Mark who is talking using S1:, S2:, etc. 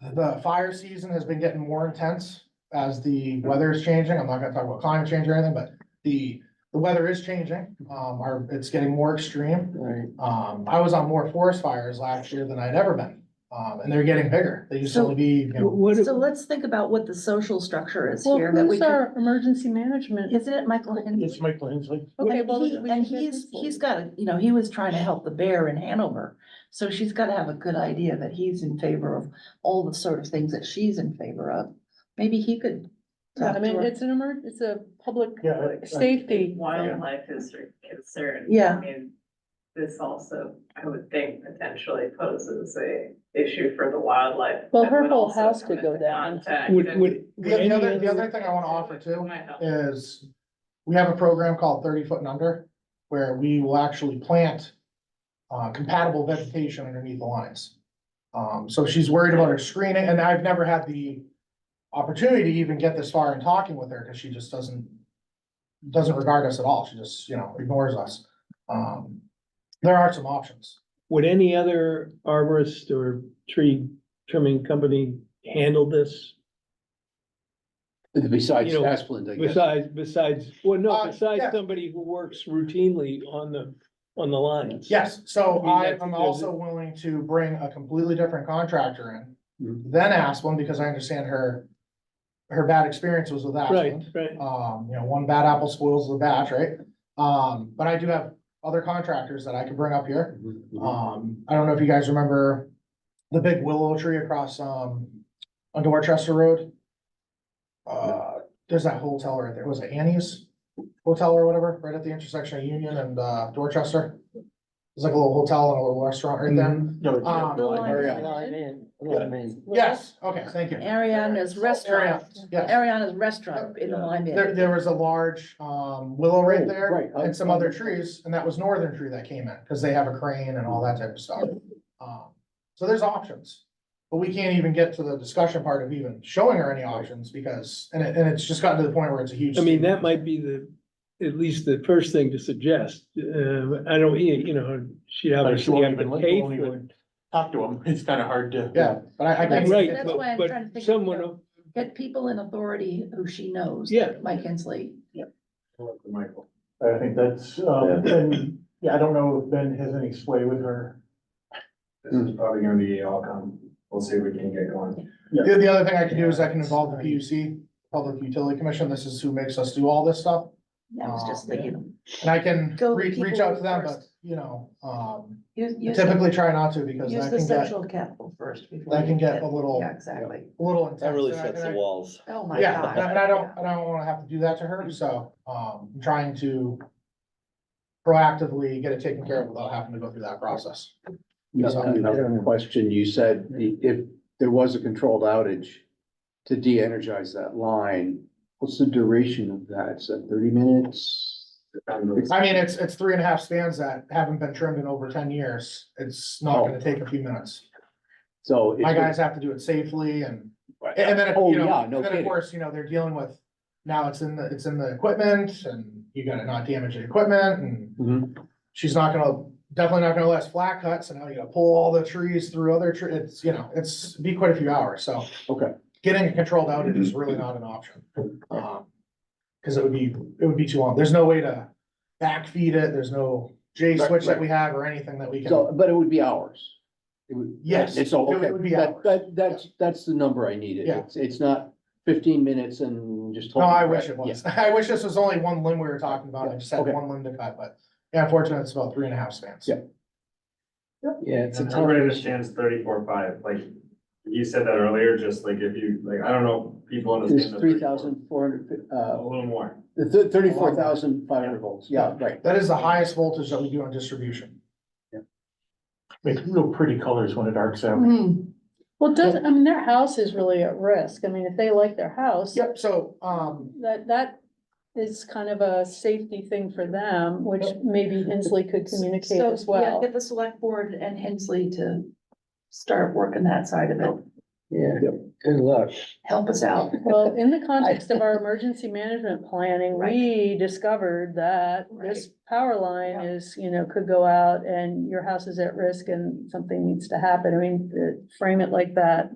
S1: the fire season has been getting more intense as the weather is changing. I'm not gonna talk about climate change or anything, but the, the weather is changing. Um, our, it's getting more extreme.
S2: Right.
S1: Um, I was on more forest fires last year than I'd ever been. Um, and they're getting bigger. They used to
S3: So-
S1: only be, you know,
S2: What,
S3: So let's think about what the social structure is
S4: Well,
S3: here that we
S4: who's
S3: could,
S4: our emergency management?
S3: isn't it Michael Hensley?
S5: It's Michael Hensley.
S4: Okay,
S3: And
S4: well,
S3: he-
S4: we
S3: And
S4: should
S3: he's,
S4: have-
S3: he's got, a you know, he was trying to help the bear in Hanover. So she's gotta have a good idea that he's in favor of all the sort of things that she's in favor of. Maybe he could.
S4: Yeah, I
S3: talk to
S4: mean,
S3: her.
S4: it's an emer, it's a public
S5: Yeah, I- I-
S4: safety.
S6: wildlife is a concern.
S3: Yeah.
S6: I mean, this also, I would think potentially poses a issue for the wildlife.
S4: Well,
S6: that
S4: her
S6: would
S4: whole
S6: also
S4: house
S6: come
S4: could go
S6: into
S4: down.
S6: contact
S2: would,
S6: and-
S2: would, would
S1: the
S2: any
S1: other, the other
S2: other,
S1: thing I wanna offer too
S6: My house.
S1: is we have a program called thirty foot and under where we will actually plant uh, compatible vegetation underneath the lines. Um, so she's worried about her screening and I've never had the opportunity to even get this far in talking with her because she just doesn't doesn't regard us at all. She just, you know, ignores us. Um, there are some options.
S2: would any other arborist or tree trimming company handle this?
S7: Besides
S2: You know,
S7: Asplund, I guess.
S2: Besides, besides, well, no,
S1: Uh,
S2: besides
S1: yeah.
S2: somebody who works routinely on the, on the lines.
S1: Yes, so
S2: I mean,
S1: I
S2: that's-
S1: am
S2: there's
S1: also
S2: a-
S1: willing to bring a completely different contractor in.
S7: Mhm.
S2: Mm-hmm.
S1: Then Asplund, because I understand her, her bad experience was with
S2: Right,
S1: Asplund.
S2: right.
S1: Um, you know, one bad apple spoils the batch, right? Um, but I do have other contractors that I could bring up here.
S7: Mhm.
S1: Um, I don't know if you guys remember the big willow tree across, um, on Dorchester Road. Uh, there's that hotel right there. Was it Annie's Hotel or whatever, right at the intersection of Union and, uh, Dorchester? There's like a little hotel and a little restaurant right there.
S5: No,
S7: Mm-hmm.
S5: it's-
S1: Um,
S3: The line-
S7: Hurry up.
S2: Line in, line in.
S1: Yes, okay, thank you.
S3: Ariana's restaurant,
S1: Ariana, Yes.
S3: Ariana's restaurant in the line.
S1: There, there was a large, um, willow right
S7: Oh,
S1: there
S7: right, I-
S1: and some other trees, and that was northern tree that came in, cause they have a crane and all that type of stuff. Um, so there's options, but we can't even get to the discussion part of even showing her any options because, and it, and it's just gotten to the point where it's a huge.
S2: I mean, that might be the, at least the first thing to suggest. Um, I don't, you you know, she'd
S5: But she
S2: obviously
S5: won't
S2: have
S5: even-
S2: to pay
S5: won't
S2: for it.
S5: even Talk to him, it's kinda hard to.
S1: Yeah, but I, I
S3: That's-
S1: can,
S2: Right,
S3: that's why
S2: but,
S3: I'm trying to think
S2: but
S3: of, you
S2: someone,
S3: Get people in authority who she knows.
S2: Yeah.
S3: Mike Hensley.
S7: Michael.
S5: I think that's, um, and, yeah, I don't know if Ben has any sway with her.
S8: This is probably gonna be all come, we'll see if we can get going.
S1: the, the other thing I can do is I can involve the PUC, Public Utility Commission, this is who makes us do all this stuff.
S3: I was just
S1: Um,
S3: thinking.
S1: And I can
S3: Go
S1: reach,
S3: people
S1: reach out to them, but,
S3: first.
S1: you know, um,
S3: Use, use, the-
S1: typically try not to because
S3: use
S1: I
S3: the
S1: can get,
S3: social capital first. before
S1: that
S3: you
S1: can get a little.
S3: Yeah, exactly.
S1: a little intense.
S9: That really
S1: and I-
S9: sets the
S1: and I-
S9: walls.
S3: Oh, my
S1: Yeah,
S3: God.
S1: and I and I don't, and I don't wanna have to do that to her, so, um, I'm trying to proactively get it taken care of without having to go through that process.
S7: Another question, you said the- if there was a controlled outage to de-energize that line, what's the duration of that? Is that thirty minutes?
S1: I mean, it's, it's three and a half spans that haven't been trimmed in over ten years. It's not gonna take a few minutes.
S7: So. it's-
S1: My guys have to do it safely and, and then, if,
S7: Oh,
S1: you
S7: yeah,
S1: know,
S7: no
S1: and then of
S7: kidding.
S1: course, you know, they're dealing with, now it's in the, it's in the equipment and you gotta not damage the equipment and
S7: Mhm.
S1: she's not gonna, definitely not gonna last flat cuts, and now you gotta pull all the trees through other trees, it's, you know, it's be quite a few hours, so.
S7: Okay. Mm-hmm.
S1: Getting a controlled outage is really not an option. Um, Cause it would be, it would be too long, there's no way to backfeed it, there's no J
S7: Right,
S1: switch that
S7: right.
S1: we have or anything that we can.
S7: So, but it would be hours. It would-
S1: Yes,
S7: It's all,
S1: it would-
S7: okay,
S1: it would be
S7: that,
S1: hours.
S7: that, that's, that's the number I needed.
S1: Yeah.
S7: It's, it's not fifteen minutes and just.
S1: No,
S7: hold
S1: I
S7: it,
S1: wish
S7: right?
S1: it was, I wish this was only one limb we were talking about, I just had
S7: Okay.
S1: one limb to cut, but yeah, unfortunately, it's about three and a half spans.
S7: Yeah. Yeah, Yeah, it's a
S8: And
S7: tough.
S8: Everybody understands thirty-four five, like, you said that earlier, just like if you, like, I don't know, if people
S7: There's
S8: understand. the
S7: three
S8: 34.
S7: thousand four hundred,
S8: A
S7: uh,
S8: little more.
S7: the thirty-four thousand five hundred volts, yeah, right.
S1: That is the highest voltage that we do on distribution.
S5: Makes real pretty colors when it arcs out.
S3: Hmm,
S4: Well, does, I mean, their house is really at risk. I mean, if they like their house,
S1: Yep, so, um,
S4: that, that is kind of a safety thing for them, which maybe Hensley could communicate
S3: So,
S4: as
S3: yeah,
S4: well.
S3: Get the select board and Hensley to start working that side of it.
S2: yeah, good luck.
S3: Help us out.
S4: Well, in the context of our emergency management planning, we discovered that this power line
S3: Yeah.
S4: is, you know, could go out and your house is at risk and something needs to happen. I mean, uh, frame it like that